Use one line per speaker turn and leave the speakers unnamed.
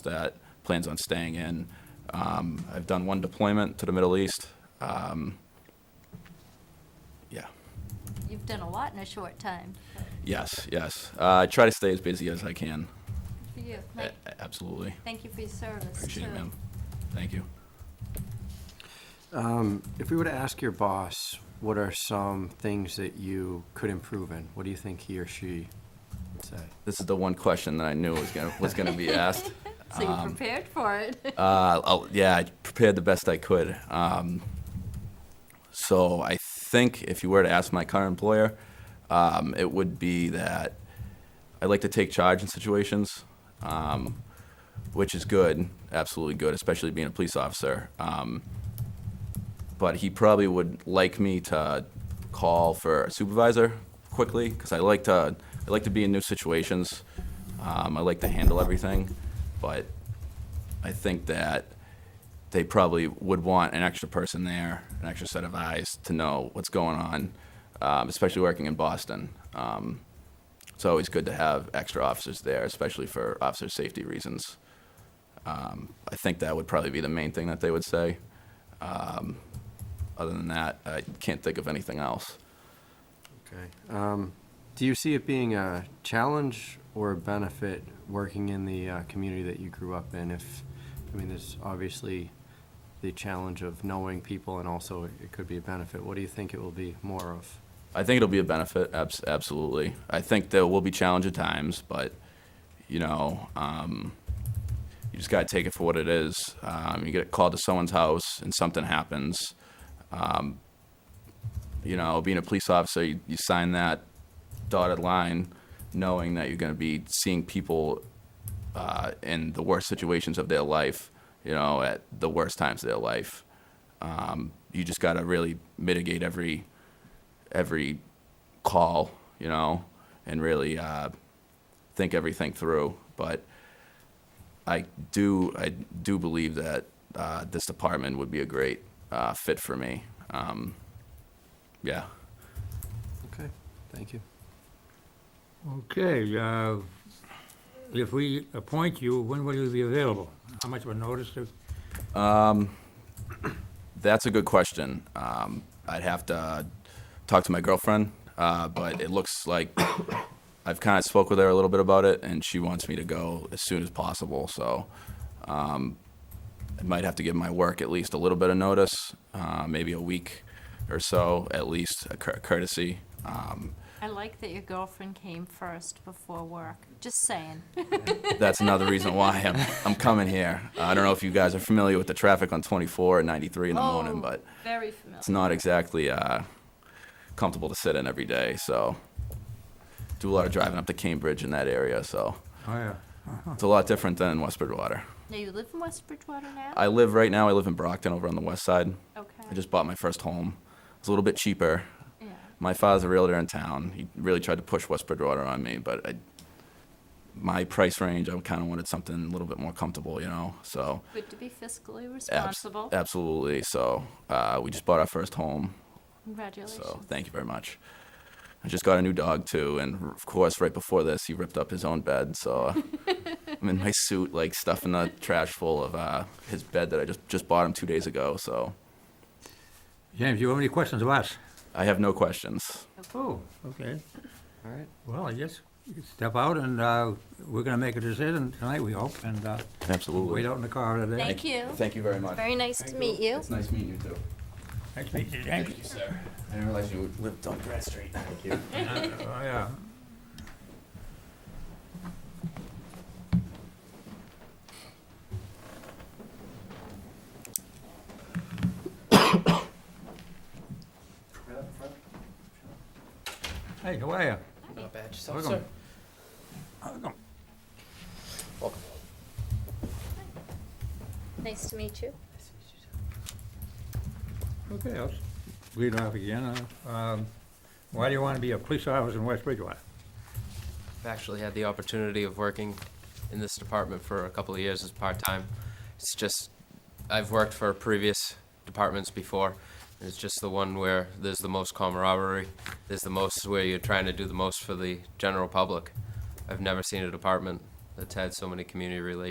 that plans on staying in. Um, I've done one deployment to the Middle East. Um, Yeah,
You've done a lot in a short time.
yes, yes. Uh, I try to stay as busy as I can.
Good for you.
A-
Mike,
a- Absolutely.
thank you for your service,
Uh, Appreciate it,
too.
ma'am. Thank you.
Um, If we were to ask your boss, what are some things that you could improve in? What do you think he or she would say?
This is the one question that I knew was gonna, was gonna be asked.
So you
Um,
prepared for it.
Uh, I'll- yeah, I prepared the best I could. Um, so I think if you were to ask my current employer, um, it would be that I like to take charge in situations, um, which is good, absolutely good, especially being a police officer. Um, but he probably would like me to call for a supervisor quickly because I like to I like to be in new situations. Um, I like to handle everything, but I think that they probably would want an extra person there, an extra set of eyes to know what's going on, um, especially working in Boston. Um, it's always good to have extra officers there, especially for officer safety reasons. Um, I think that would probably be the main thing that they would say. Um, other than that, I can't think of anything else.
Okay. Um, Do you see it being a challenge or a benefit working in the uh, community that you grew up in? If, I mean, there's obviously the challenge of knowing people and also it could be a benefit. What do you think it will be more of?
I think it'll be a benefit, abs- absolutely. I think there will be challenging times, but you know, um, you just gotta take it for what it is. Um, you get called to someone's house and something happens. Um, you know, being a police officer, you, you sign that dotted line, knowing that you're gonna be seeing people uh, in the worst situations of their life. You know, at the worst times of their life. Um, you just gotta really mitigate every every call, you know, and really uh, think everything through. But I do, I do believe that uh, this department would be a great uh, fit for me. Um, yeah.
Okay, thank you.
Okay, uh, if we appoint you, when will you be available? How much of a notice? is-
That's a good question. Um, I'd have to talk to my girlfriend, uh, but it looks like I've kind of spoke with her a little bit about it, and she wants me to go as soon as possible. So um, I might have to give my work at least a little bit of notice, uh, maybe a week or so, at least a cour- courtesy. Um,
I like that your girlfriend came first before work. Just saying.
that's another reason why I'm, I'm coming here. I don't know if you guys are familiar with the traffic on 24 and 93 in the
Oh.
morning, but
Very familiar.
it's not exactly uh, comfortable to sit in every day. So, do a lot of driving up to Cambridge in that area. So,
Oh, yeah.
it's a lot different than West Bridgewater.
Now, you live in West Bridgewater now?
I live right now. I live in Brockton, over on the west side.
Okay.
I just bought my first home. It's a little bit cheaper.
Yeah.
My father's a realtor in town. He really tried to push West Bridgewater on me, but I, my price range, I kind of wanted something a little bit more comfortable, you know. So,
Good to be fiscally
abs-
responsible.
absolutely. So, uh, we just bought our first home. So
Congratulations.
thank you very much. I just got a new dog too, and r- of course, right before this, he ripped up his own bed. So uh, I'm in my suit, like stuffing the trash full of uh, his bed that I just just bought him two days ago. So
James, you have any questions of us?
I have no questions.
Oh, okay.
All right.
Well, I guess you can step out, and uh, we're going to make a decision tonight, we hope, and uh, wait
Absolutely.
out in the car today.
Thank you.
Thank you very much.
Very nice to meet you.
It's nice meeting you too.
Nice to meet you, James.
you, sir. I didn't realize you lived on Grant Street. Thank you.
Oh, yeah. Hey, how are you?
Not bad, yourself,
Welcome.
sir.
Welcome.
Welcome.
Nice to meet you.
Okay, I'll s- lead off again. Uh, um, Why do you want to be a police officer in West Bridgewater?
I've actually had the opportunity of working in this department for a couple of years as part-time. It's just, I've worked for previous departments before, and it's just the one where there's the most camaraderie, there's the most where you're trying to do the most for the general public. I've never seen a department that's had so many community relations